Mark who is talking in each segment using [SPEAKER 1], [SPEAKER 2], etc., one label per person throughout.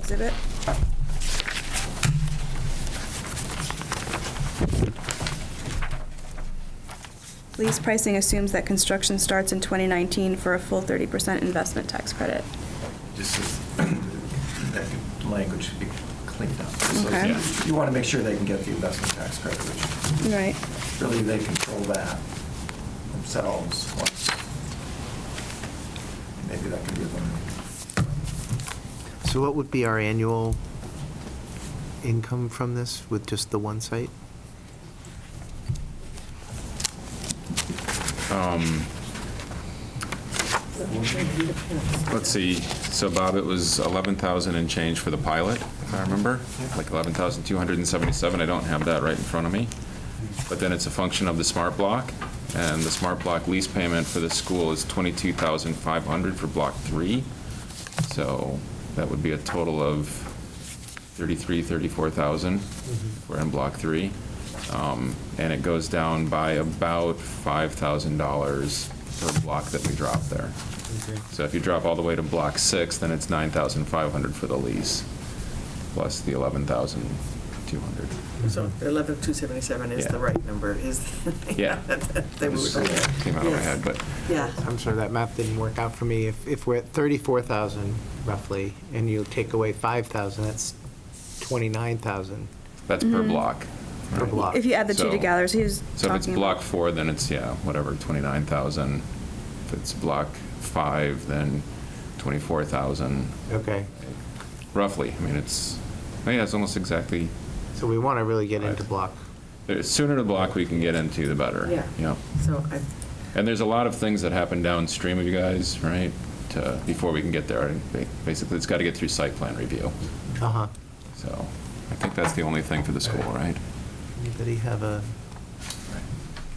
[SPEAKER 1] Exhibit. Lease pricing assumes that construction starts in 2019 for a full 30% investment tax credit.
[SPEAKER 2] Just as, that language should be cleaned up. So
[SPEAKER 1] Okay.
[SPEAKER 3] Yeah.
[SPEAKER 2] You want to make sure they can get the investment tax credit, which
[SPEAKER 1] Right.
[SPEAKER 2] really they control that themselves once. Maybe that can be eliminated.
[SPEAKER 4] So what would be our annual income from this with just the one site?
[SPEAKER 3] Um, Let's see, so Bob, it was 11,000 and change for the pilot, if I remember, like 11,277, I don't have that right in front of me. But then it's a function of the smart block, and the smart block lease payment for the school is 22,500 for block three. So that would be a total of 33, 34,000 if we're in block three. Um, And it goes down by about $5,000 per block that we drop there. So if you drop all the way to block six, then it's 9,500 for the lease, plus the 11,200.
[SPEAKER 5] So 11,277 is the
[SPEAKER 3] Mm-hmm. Yeah.
[SPEAKER 5] right number, is.
[SPEAKER 3] Yeah.
[SPEAKER 5] They moved
[SPEAKER 3] Just
[SPEAKER 5] on.
[SPEAKER 3] Came out of my
[SPEAKER 5] Yes.
[SPEAKER 3] head, but,
[SPEAKER 5] Yeah.
[SPEAKER 4] I'm sorry, that math didn't work out for me. If, if we're at 34,000 roughly, and you take away 5,000, that's 29,000
[SPEAKER 3] that's per
[SPEAKER 1] Mm-hmm.
[SPEAKER 3] block.
[SPEAKER 4] per
[SPEAKER 3] right?
[SPEAKER 4] block.
[SPEAKER 1] If you add the two
[SPEAKER 3] So-
[SPEAKER 1] together, so he was
[SPEAKER 3] So if it's
[SPEAKER 1] talking about-
[SPEAKER 3] block four, then it's, yeah, whatever, 29,000. If it's block five, then 24,000,
[SPEAKER 4] Okay,
[SPEAKER 3] roughly. I mean, it's, yeah, it's almost exactly,
[SPEAKER 4] so we want to really get into
[SPEAKER 3] Right.
[SPEAKER 4] block.
[SPEAKER 3] the sooner the block we can get into, the better.
[SPEAKER 5] Yeah.
[SPEAKER 3] Yeah.
[SPEAKER 5] So I,
[SPEAKER 3] And there's a lot of things that happen downstream of you guys, right? To, before we can get there, Ba- basically, it's got to get through site plan review.
[SPEAKER 4] Uh-huh.
[SPEAKER 3] So I think that's the only thing for the school, right?
[SPEAKER 4] Anybody have a,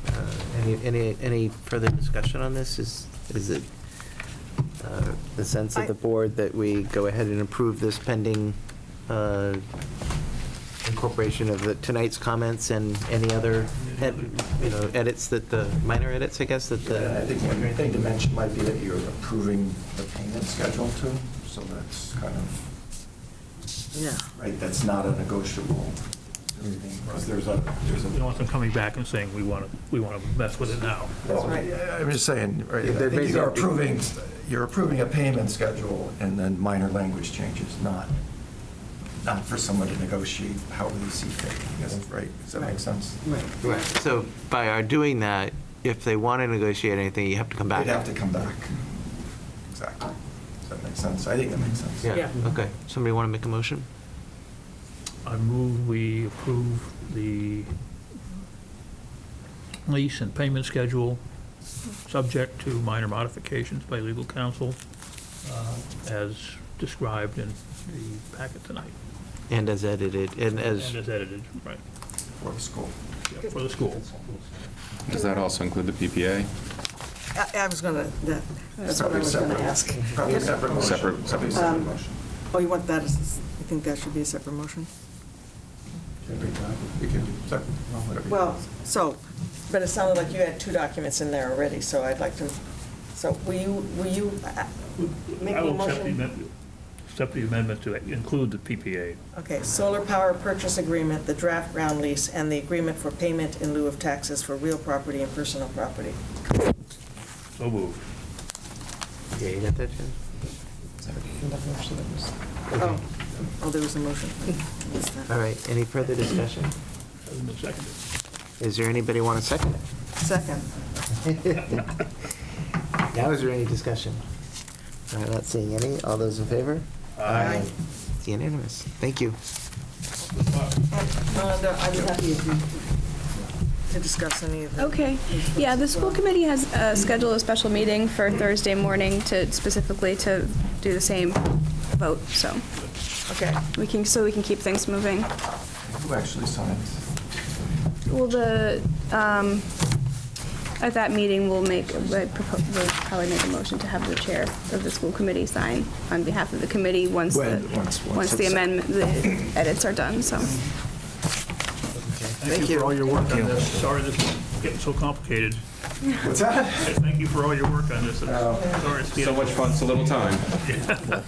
[SPEAKER 4] uh, any, any, any further discussion on this? Is, is it uh, the sense of the board that we go ahead and approve this pending uh, incorporation of the, tonight's comments and any other, ed- you know, edits that the, minor edits, I guess, that
[SPEAKER 2] Yeah, I
[SPEAKER 4] the.
[SPEAKER 2] think one thing to mention might be that you're approving the payment schedule too, so that's kind of,
[SPEAKER 5] yeah.
[SPEAKER 2] right, that's not a negotiable thing, because there's a, there's a.
[SPEAKER 6] We don't want them coming back and saying, we want to, we want to mess with it now.
[SPEAKER 2] Well,
[SPEAKER 5] right.
[SPEAKER 2] yeah, I'm just saying, right,
[SPEAKER 4] Yeah,
[SPEAKER 2] I
[SPEAKER 4] they're
[SPEAKER 2] think you're
[SPEAKER 4] basically-
[SPEAKER 2] approving, you're approving a payment schedule and then minor language changes, not, not for someone to negotiate how they see fit, I guess, right? Does that make sense?
[SPEAKER 5] Right.
[SPEAKER 4] Right. So by our doing that, if they want to negotiate anything, you have to come back.
[SPEAKER 2] They'd have to come back. Exactly. Does that make sense? I think that makes sense.
[SPEAKER 4] Yeah,
[SPEAKER 5] Yeah.
[SPEAKER 4] okay. Somebody want to make a motion?
[SPEAKER 6] I move we approve the lease and payment schedule, subject to minor modifications by legal counsel, uh, as described in the packet tonight.
[SPEAKER 4] And as edited, and as.
[SPEAKER 6] And as edited, right,
[SPEAKER 2] For the school.
[SPEAKER 6] yeah, for the school.
[SPEAKER 3] Does that also include the PPA?
[SPEAKER 5] I, I was gonna, that, that's what
[SPEAKER 2] Probably
[SPEAKER 5] I was gonna
[SPEAKER 2] separate-
[SPEAKER 5] ask.
[SPEAKER 2] Probably a separate motion.
[SPEAKER 3] Separate-
[SPEAKER 2] Probably a
[SPEAKER 5] Um,
[SPEAKER 2] separate motion.
[SPEAKER 5] Oh, you want that, as- you think that should be a separate motion?
[SPEAKER 2] We can do separate, whatever you
[SPEAKER 5] Well,
[SPEAKER 2] want.
[SPEAKER 5] so, but it sounded like you had two documents in there already, so I'd like to, so will you, will you uh, make
[SPEAKER 6] I
[SPEAKER 5] a
[SPEAKER 6] will accept the
[SPEAKER 5] motion?
[SPEAKER 6] amendment- accept the amendment to include the PPA.
[SPEAKER 5] Okay, solar power purchase agreement, the draft ground lease, and the agreement for payment in lieu of taxes for real property and personal property.
[SPEAKER 6] So moved.
[SPEAKER 4] Yeah, you got that, Jen?
[SPEAKER 5] Oh, oh, there was a motion. Missed that.
[SPEAKER 4] All right, any further discussion?
[SPEAKER 6] Hasn't been seconded.
[SPEAKER 4] Is there anybody want to second
[SPEAKER 5] Second.
[SPEAKER 4] it? Now is there any discussion? All right, not seeing any. All those in favor?
[SPEAKER 5] Aye.
[SPEAKER 4] It's unanimous. Thank you.
[SPEAKER 5] And Melinda, I was happy if you, to discuss any of the.
[SPEAKER 1] Okay, yeah, the school committee has uh, scheduled a special meeting for Thursday morning to, specifically to do the same vote, so
[SPEAKER 5] Okay,
[SPEAKER 1] we can, so we can keep things moving.
[SPEAKER 2] Who actually signed?
[SPEAKER 1] Well, the, um, at that meeting, we'll make, we'll propo- we'll probably make a motion to have the chair of the school committee sign on behalf of the committee once the,
[SPEAKER 2] When- once- once
[SPEAKER 1] once the
[SPEAKER 2] it's-
[SPEAKER 1] amendment, the edits are done, so.
[SPEAKER 6] Thank you for all your work on this. Sorry this is getting so complicated.
[SPEAKER 2] What's that?
[SPEAKER 6] Thank you for all your work on this. Sorry it's
[SPEAKER 3] So
[SPEAKER 6] getting-
[SPEAKER 3] much fun, so little time.